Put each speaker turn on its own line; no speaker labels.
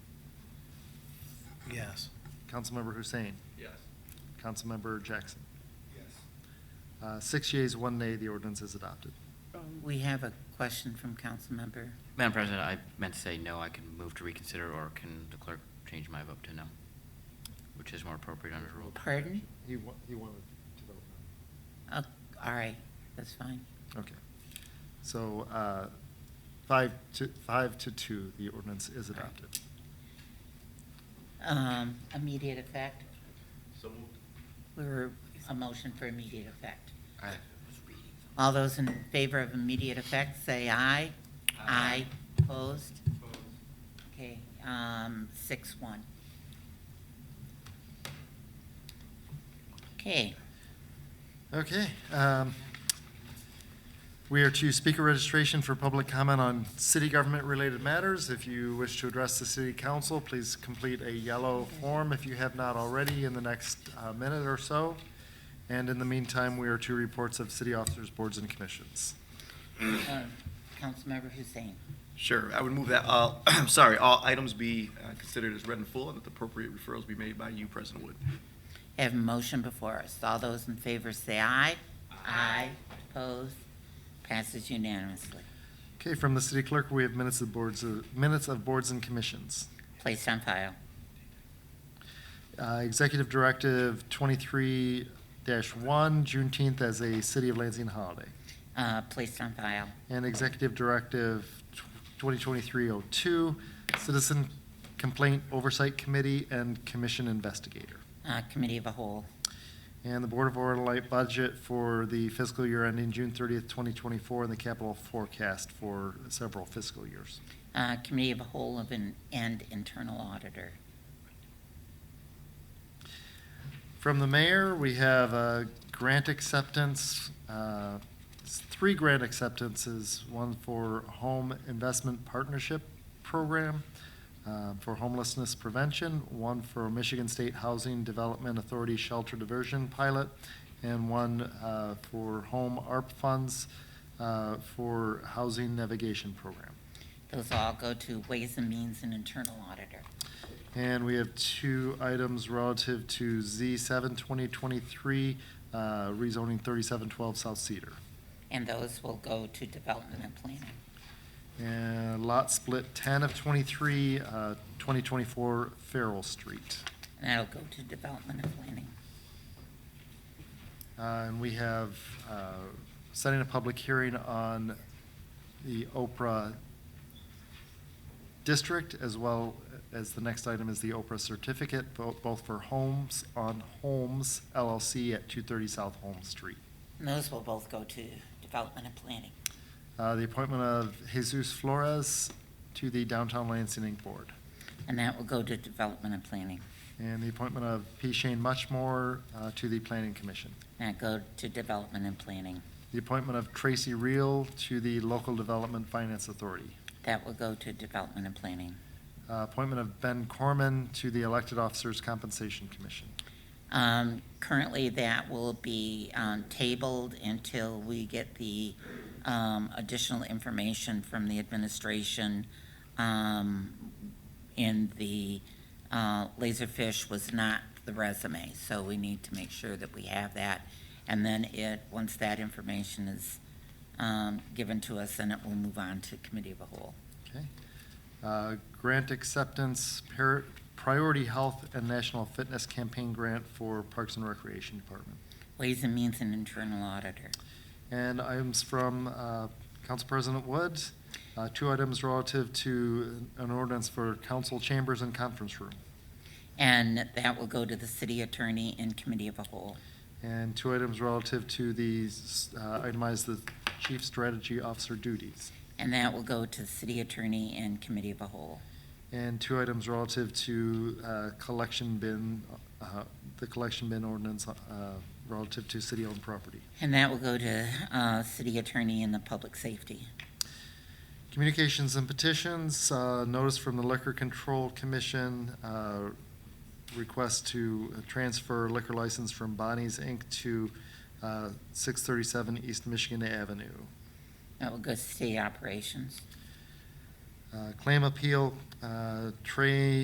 Yes.
Councilmember Hussein.
Yes.
Councilmember Jackson.
Yes.
Uh, Six yeas, one nay, the ordinance is adopted.
We have a question from council member.
Madam President, I meant to say no, I can move to reconsider, or can the clerk change my vote to no? Which is more appropriate under the rule.
Pardon?
He wa- he wanted to vote
Oh, All right, that's fine.
no. Okay. So uh, five to, five to two, the ordinance is
All right.
adopted.
Um, Immediate effect,
So moved.
we were, a motion for immediate effect.
I was
All those in favor of immediate effect, say aye.
Aye.
Opposed? Okay, um, six, one. Okay,
Okay. um, We are to speaker registration for public comment on city government-related matters. If you wish to address the city council, please complete a yellow form if you have not already in the next uh, minute or so. And in the meantime, we are to reports of city officers, boards, and commissions.
uh, Councilmember Hussein.
Sure, I would move that, uh, I'm sorry, all items be uh, considered as read in full and that the appropriate referrals be made by you, President Wood.
Have a motion before us. All those in favor say aye. Aye. Opposed? Passes unanimously.
Okay, from the city clerk, we have minutes of boards, uh, minutes of boards and commissions.
Placed on file.
Uh, Executive Directive twenty-three one, Juneteenth as a City of Lansing holiday.
Uh, placed on file.
and Executive Directive 2023-02, Citizen Complaint Oversight Committee and Commission Investigator.
Uh, committee of a whole.
And the Board of Overlay Budget for the fiscal year ending June 30th, 2024, and the capital forecast for several fiscal years.
Uh, committee of a whole of an, and internal auditor.
From the mayor, we have a grant acceptance, uh, s- three grant acceptances, one for Home Investment Partnership Program uh, for homelessness prevention, one for Michigan State Housing Development Authority Shelter Diversion Pilot, and one uh, for Home ARP Funds uh, for Housing Navigation Program.
Those all go to Ways and Means and Internal Auditor.
And we have two items relative to Z seven twenty twenty-three, uh, rezoning thirty-seven twelve South Cedar.
And those will go to Development and Planning.
And lot split ten of twenty-three, uh, twenty twenty-four Farrell Street.
And that'll go to Development and Planning.
Uh, and we have, uh, setting a public hearing on the Oprah district as well as the next item is the Oprah certificate, bo- both for Homes on Holmes LLC at two thirty South Holmes Street.
And those will both go to Development and Planning.
Uh, The appointment of Jesus Flores to the Downtown Lansing Inc. Board.
And that will go to Development and Planning.
And the appointment of P. Shane Muchmore uh, to the Planning Commission.
And that go to Development and Planning.
The appointment of Tracy Reel to the Local Development Finance Authority.
That will go to Development and Planning.
Uh, Appointment of Ben Corman to the Elected Officers Compensation Commission.
Um, Currently, that will be um, tabled until we get the um, additional information from the administration. um, In the, uh, Laserfish was not the resume, so we need to make sure that we have that. And then it, once that information is um, given to us, then it will move on to Committee of a Whole.
Okay. Uh, Grant acceptance, par- Priority Health and National Fitness Campaign Grant for Parks and Recreation Department.
Ways and Means and Internal Auditor.
And items from uh, Council President Wood, Uh, two items relative to an ordinance for council chambers and conference room,
And that will go to the City Attorney and Committee of a Whole.
and two items relative to the, s- uh, itemize the chief strategy officer duties,
And that will go to the city attorney and committee of a whole.
and two items relative to uh, collection bin, uh, the collection bin ordinance uh, relative to city-owned property.
And that will go to uh, city attorney and the public safety.
Communications and petitions, uh, notice from the Liquor Control Commission, uh, request to transfer liquor license from Bonnie's Inc. to uh, 637 East Michigan Avenue.
That will go to city operations.
Uh, Claim appeal, uh, Trey